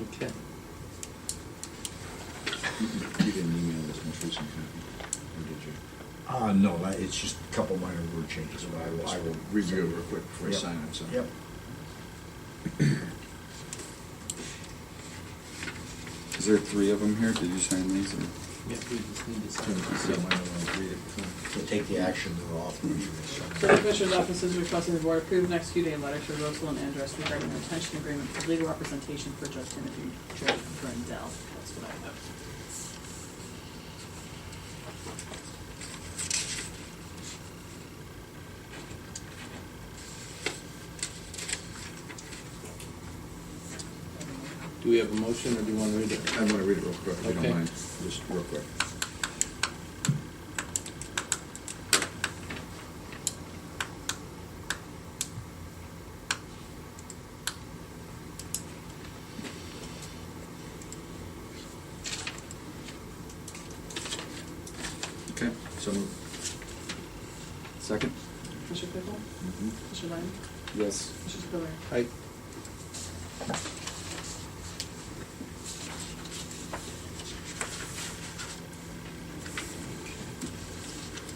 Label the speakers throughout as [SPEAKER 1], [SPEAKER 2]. [SPEAKER 1] Okay.
[SPEAKER 2] You didn't email this most recent copy, or did you?
[SPEAKER 3] Uh, no, that- it's just a couple minor word changes, but I will, I will.
[SPEAKER 2] Review it real quick before I
[SPEAKER 3] Yep.
[SPEAKER 2] sign it, so.
[SPEAKER 3] Yep.
[SPEAKER 4] Is there three of them here? Did you sign these or?
[SPEAKER 1] Yeah, we just need to sign
[SPEAKER 2] Turn it to see
[SPEAKER 1] this.
[SPEAKER 2] if I don't read it.
[SPEAKER 3] So take the action that authorizes.
[SPEAKER 5] So the Commissioner's Office is requesting the Board approve and execute a letter to Rosalind Andress regarding the retention agreement for legal representation for Judge Timothy J. Brendel. That's what I have.
[SPEAKER 1] Do we have a motion, or do you want to read it?
[SPEAKER 2] I want to read it real quick, if you
[SPEAKER 1] Okay.
[SPEAKER 2] don't mind, just real quick. Okay, so
[SPEAKER 4] Second?
[SPEAKER 5] Commissioner Claypool?
[SPEAKER 2] Mm-hmm.
[SPEAKER 5] Commissioner Lyon?
[SPEAKER 4] Yes.
[SPEAKER 5] Commissioner Spiller?
[SPEAKER 1] Aye.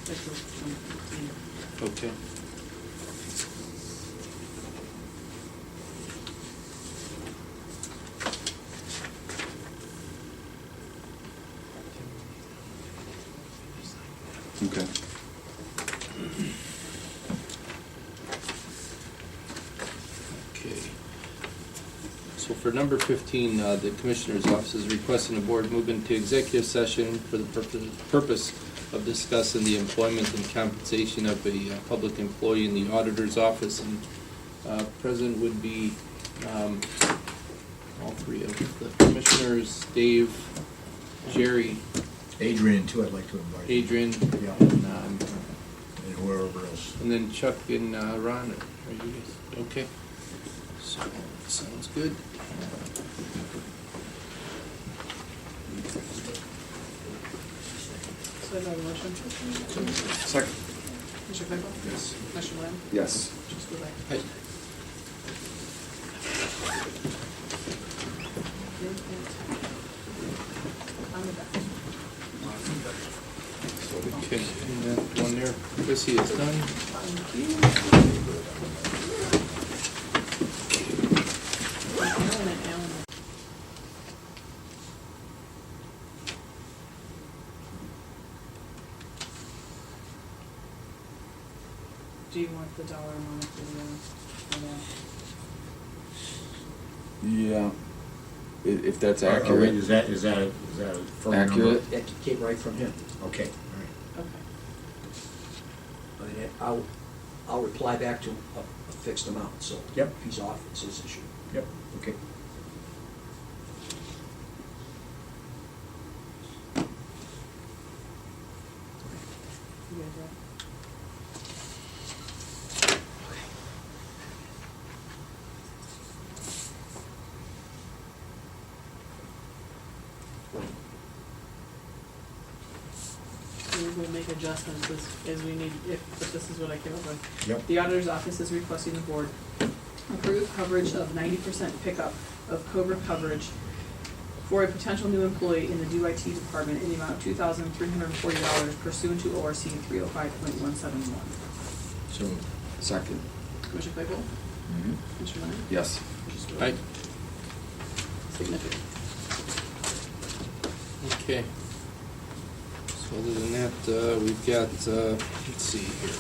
[SPEAKER 5] That's what I'm doing.
[SPEAKER 1] Okay.
[SPEAKER 4] Okay.
[SPEAKER 1] Okay. So for number fifteen, uh, the Commissioner's Office is requesting the Board move into executive session for the purpo- purpose of discussing the employment and compensation of a uh, public employee in the Auditor's Office. And uh, present would be um, all three of the Commissioners, Dave, Jerry,
[SPEAKER 3] Adrian too, I'd like to invite.
[SPEAKER 1] Adrian,
[SPEAKER 3] Yeah.
[SPEAKER 1] and um,
[SPEAKER 3] And whoever else.
[SPEAKER 1] and then Chuck and uh, Ron. Are you guys, okay? So, sounds good.
[SPEAKER 5] So I have a motion. Commissioner
[SPEAKER 4] Second?
[SPEAKER 5] Claypool?
[SPEAKER 2] Yes.
[SPEAKER 5] Commissioner Lyon?
[SPEAKER 4] Yes.
[SPEAKER 5] Commissioner Spiller?
[SPEAKER 1] Hey.
[SPEAKER 5] On the back.
[SPEAKER 1] Okay, and that one there, Chrissy is done.
[SPEAKER 5] Thank you. Alan and Alan. Do you want the dollar amount for the, for
[SPEAKER 4] Yeah. I- If that's
[SPEAKER 3] Are- are we-
[SPEAKER 4] accurate.
[SPEAKER 3] Is that, is that, is that a firm number?
[SPEAKER 4] Accurate.
[SPEAKER 6] That came right from him.
[SPEAKER 3] Okay, all right.
[SPEAKER 5] the, okay,
[SPEAKER 6] I mean, I'll, I'll reply back to a a fixed amount, so.
[SPEAKER 3] Yep.
[SPEAKER 6] if He's off, it's his issue.
[SPEAKER 3] Yep, okay.
[SPEAKER 5] you guys ready? We will make adjustments as, as we need, if, if this is what I came up with.
[SPEAKER 3] Yep.
[SPEAKER 5] The auditor's office is requesting the board approve coverage of ninety percent pickup of Cobra coverage for a potential new employee in the DIT department in the amount of two thousand three hundred and forty dollars pursuant to ORC three oh five point one seven one.
[SPEAKER 2] So moved.
[SPEAKER 4] Second.
[SPEAKER 5] Commissioner Claypool?
[SPEAKER 2] Mm-hmm.
[SPEAKER 5] Commissioner Lennon?
[SPEAKER 4] Yes.
[SPEAKER 5] Commissioner
[SPEAKER 1] Aye.
[SPEAKER 5] Spillier? Significant.
[SPEAKER 1] Okay. So other than that, uh, we've got, uh, let's see here.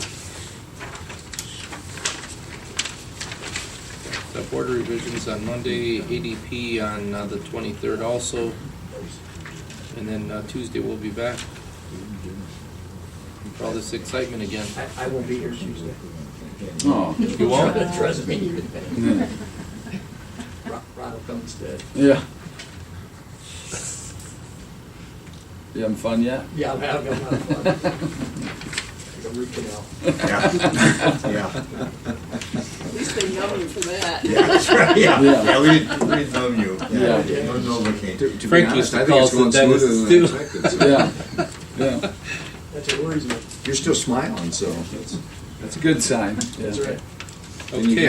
[SPEAKER 1] The uh, board revisions on Monday, ADP on uh, the twenty-third also, and then uh, Tuesday we'll be back for all this excitement again.
[SPEAKER 6] I, I won't be here Tuesday.
[SPEAKER 4] Oh,
[SPEAKER 1] You won't?
[SPEAKER 6] Trust me.
[SPEAKER 4] Yeah.
[SPEAKER 6] Ro- Ron will come instead.
[SPEAKER 4] yeah. You having fun yet?
[SPEAKER 6] Yeah, I'm having a lot of fun. Like a root canal.
[SPEAKER 3] Yeah, yeah,
[SPEAKER 5] At least they know you for that.
[SPEAKER 3] yeah, that's right, yeah,
[SPEAKER 4] Yeah.
[SPEAKER 3] yeah, we didn't, we didn't numb you.
[SPEAKER 4] Yeah.
[SPEAKER 3] No Novocaine.
[SPEAKER 2] To- To be
[SPEAKER 1] Frank
[SPEAKER 2] honest,
[SPEAKER 1] used to
[SPEAKER 2] I
[SPEAKER 1] call
[SPEAKER 2] think it's
[SPEAKER 1] us
[SPEAKER 2] going
[SPEAKER 1] the dentist,
[SPEAKER 2] smoother than
[SPEAKER 1] too.
[SPEAKER 2] expected. so-
[SPEAKER 4] Yeah. Yeah.
[SPEAKER 6] That's what worries me.
[SPEAKER 2] You're still smiling, so that's.
[SPEAKER 4] That's a good sign.
[SPEAKER 6] That's
[SPEAKER 4] Yeah.
[SPEAKER 6] right.
[SPEAKER 2] And you
[SPEAKER 1] Okay.